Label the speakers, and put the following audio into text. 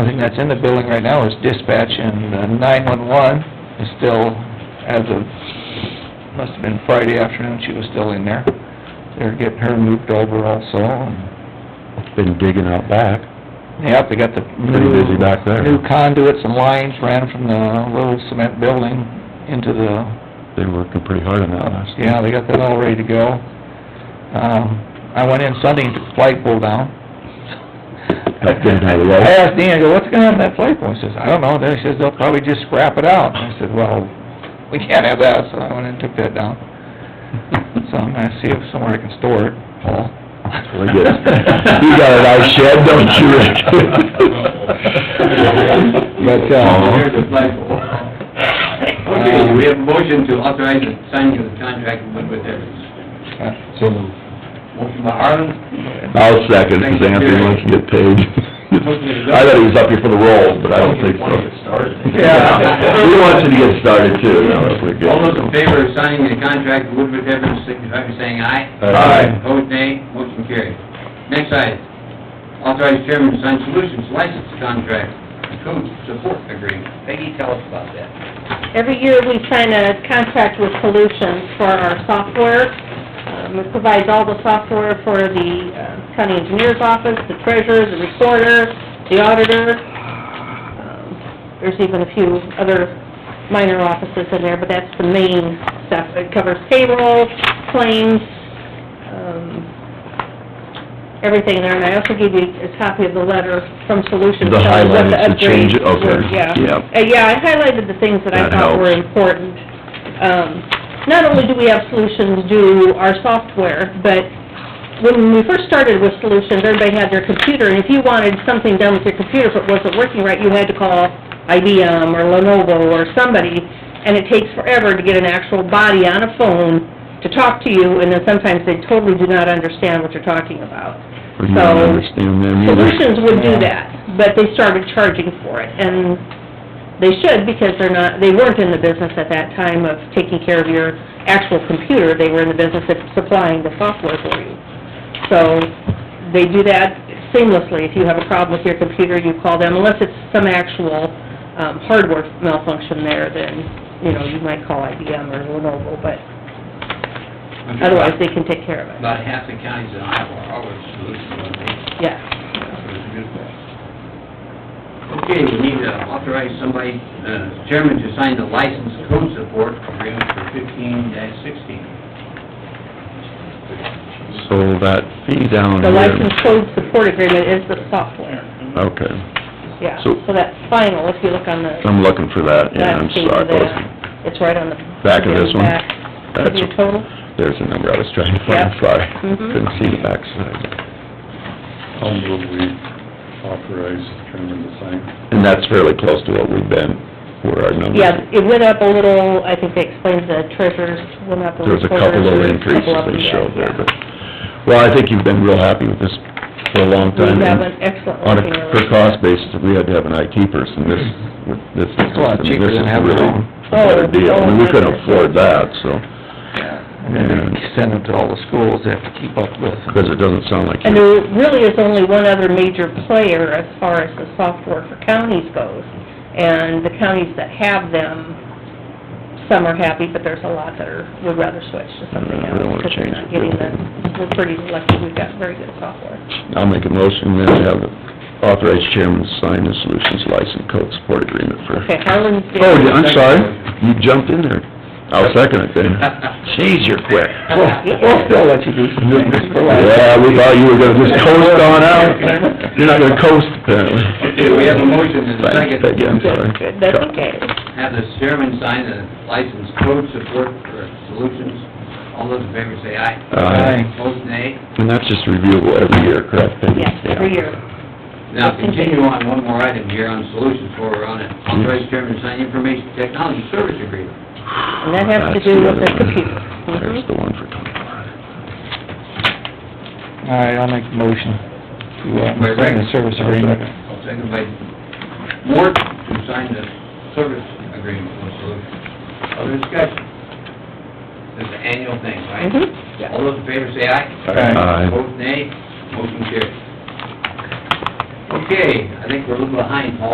Speaker 1: I think that's in the building right now is dispatch and uh, nine-one-one is still, as of, must have been Friday afternoon, she was still in there. They're getting her moved over also and,
Speaker 2: Been digging out back.
Speaker 1: yep, they got the
Speaker 2: Pretty
Speaker 1: new-
Speaker 2: busy back there.
Speaker 1: New conduits and lines ran from the little cement building into the uh,
Speaker 2: They were working pretty hard on that last night.
Speaker 1: Yeah, they got that all ready to go. Um, I went in Sunday and took the flagpole down.
Speaker 2: Up there by the road?
Speaker 1: I asked Dean, I go, what's gonna happen to that flagpole? He says, I don't know. Then he says, they'll probably just scrap it out. And I said, well, we can't have that, so I went in and took that down. So I'm gonna see if somewhere I can store it, Paul.
Speaker 2: Well, you got- you got a nice shed, don't you, Rick?
Speaker 1: But, uh,
Speaker 2: Here's the
Speaker 1: Um,
Speaker 3: Okay, we have a motion to authorize the signing of the contract with Wood Evans. Motion by Harland.
Speaker 2: I'll second, because Anthony wants to get paid. I thought he was up here for the roll, but I don't think so.
Speaker 1: Yeah.
Speaker 2: He wants you to get started too, no, that's what good.
Speaker 3: All those in favor of signing the contract with Woodward Evans, signify by saying aye.
Speaker 2: Uh, Aye.
Speaker 3: Opposed, nay. Motion carried. Next item, authorize chairman to sign solutions license contract, code support agreement. Peggy, tell us about that.
Speaker 4: Every year, we sign a contract with Solutions for our software. Um, It provides all the software for the uh, county engineer's office, the treasurer, the recorder, the auditor. Um, There's even a few other minor offices in there, but that's the main stuff. It covers payroll, claims, um, everything there. And I also gave you a copy of the letter from Solutions.
Speaker 2: The
Speaker 4: telling what
Speaker 2: highlighted, the change-
Speaker 4: upgrades were.
Speaker 2: okay,
Speaker 4: Yeah.
Speaker 2: yeah.
Speaker 4: Uh, yeah, I highlighted the things that I
Speaker 2: That
Speaker 4: thought were
Speaker 2: helps.
Speaker 4: important. Um, not only do we have Solutions do our software, but when we first started with Solutions, everybody had their computer, and if you wanted something done with your computer, if it wasn't working right, you had to call IBM or Lenovo or somebody, and it takes forever to get an actual body on a phone to talk to you, and then sometimes they totally do not understand what you're talking about.
Speaker 2: Or you
Speaker 4: So-
Speaker 2: don't understand them either.
Speaker 4: Solutions would do
Speaker 1: Yeah.
Speaker 4: that, but they started charging for it, and they should, because they're not, they weren't in the business at that time of taking care of your actual computer, they were in the business of supplying the software for you. So, they do that seamlessly, if you have a problem with your computer, you call them, unless it's some actual, um, hardware malfunction there, then, you know, you might call IBM or Lenovo, but otherwise they can take care of it,
Speaker 3: About half the counties in Iowa are always solutions on
Speaker 4: yeah.
Speaker 3: Okay, we need to authorize somebody, uh, chairman to sign the license code support agreement for fifteen dash sixteen.
Speaker 2: So that fee down
Speaker 4: The
Speaker 2: here.
Speaker 4: license code support agreement is the software.
Speaker 2: Okay,
Speaker 4: Yeah,
Speaker 2: So-
Speaker 4: so that's final, if you look on the
Speaker 2: I'm looking for that, yeah, I'm
Speaker 4: last page
Speaker 2: sorry.
Speaker 4: of
Speaker 2: I wasn't-
Speaker 4: that, it's right on the...
Speaker 2: Back of this one?
Speaker 4: back.
Speaker 2: That's-
Speaker 4: Your total?
Speaker 2: There's the number I was trying to find,
Speaker 4: Yep.
Speaker 2: sorry.
Speaker 4: Mhm.
Speaker 2: Couldn't see the backside.
Speaker 5: I'll move we authorize the chairman to sign.
Speaker 2: And that's fairly close to what we've been, where our numbers.
Speaker 4: Yeah, it went up a little, I think they explained the treasurer's went up a
Speaker 2: There was
Speaker 4: little.
Speaker 2: a couple
Speaker 4: quarter,
Speaker 2: of
Speaker 4: there's a
Speaker 2: increases
Speaker 4: couple up
Speaker 2: they
Speaker 4: yet,
Speaker 2: showed there,
Speaker 4: yeah.
Speaker 2: but, well, I think you've been real happy with this for a long time.
Speaker 4: We have
Speaker 2: and
Speaker 4: an excellent
Speaker 2: On a
Speaker 4: working relationship.
Speaker 2: per cost basis, if we had to have an IT person, this, with this.
Speaker 1: It's a lot
Speaker 2: I mean,
Speaker 1: cheaper
Speaker 2: this
Speaker 1: than
Speaker 2: is
Speaker 1: having
Speaker 2: really
Speaker 1: our own.
Speaker 2: A better
Speaker 4: Oh,
Speaker 2: deal, I mean, we
Speaker 4: oh,
Speaker 2: couldn't
Speaker 4: goodness.
Speaker 2: afford that, so,
Speaker 1: And then they send them to all the schools they have to keep up with.
Speaker 2: because it doesn't sound like
Speaker 4: And
Speaker 2: you,
Speaker 4: there really is only one other major player as far as the software for counties goes. And the counties that have them, some are happy, but there's a lot that are, would rather switch to something
Speaker 2: Yeah,
Speaker 4: else.
Speaker 2: they don't wanna
Speaker 4: because
Speaker 2: change
Speaker 4: they're not
Speaker 2: the
Speaker 4: getting
Speaker 2: building.
Speaker 4: the- We're pretty lucky, we've got very good software.
Speaker 2: I'll make a motion then to have the authorized chairman to sign the solutions license code support agreement for.
Speaker 4: Okay, Harlan's did.
Speaker 2: Oh, yeah, I'm sorry, you jumped in there. I'll second it then. Jeez, you're quick.
Speaker 1: We'll still let you do some things for life.
Speaker 2: Yeah, we thought you were gonna just coast on out. You're not gonna coast apparently.
Speaker 3: Okay, we have a motion and a second.
Speaker 2: Thanks, Peggy, I'm sorry.
Speaker 4: Good, good, that's okay.
Speaker 3: Have the chairman sign the license code support for solutions. All those in favor say aye.
Speaker 2: Aye.
Speaker 3: Opposed, nay.
Speaker 2: And that's just reviewable every year, correct? Peggy?
Speaker 4: Yes, every year.
Speaker 3: Now, continue on one more item here on solutions before we're on it. Authorize chairman to sign information technology service agreement.
Speaker 4: And that has to
Speaker 2: That's
Speaker 4: do with
Speaker 2: other
Speaker 4: the
Speaker 2: one.
Speaker 4: computer.
Speaker 2: There's
Speaker 4: Mhm.
Speaker 2: the one for twenty-four.
Speaker 1: All right, I'll make a motion to, uh,
Speaker 3: Wait,
Speaker 1: sign the
Speaker 3: wait.
Speaker 1: service agreement.
Speaker 3: Second by Mort, to sign the service agreement with Solutions. Other discussion? This is an annual thing, right?
Speaker 4: Mhm, yeah.
Speaker 3: All those in favor say aye.
Speaker 1: Aye.
Speaker 2: Aye.
Speaker 3: Vote nay, motion carries. Okay, I think we're a little behind, Paul.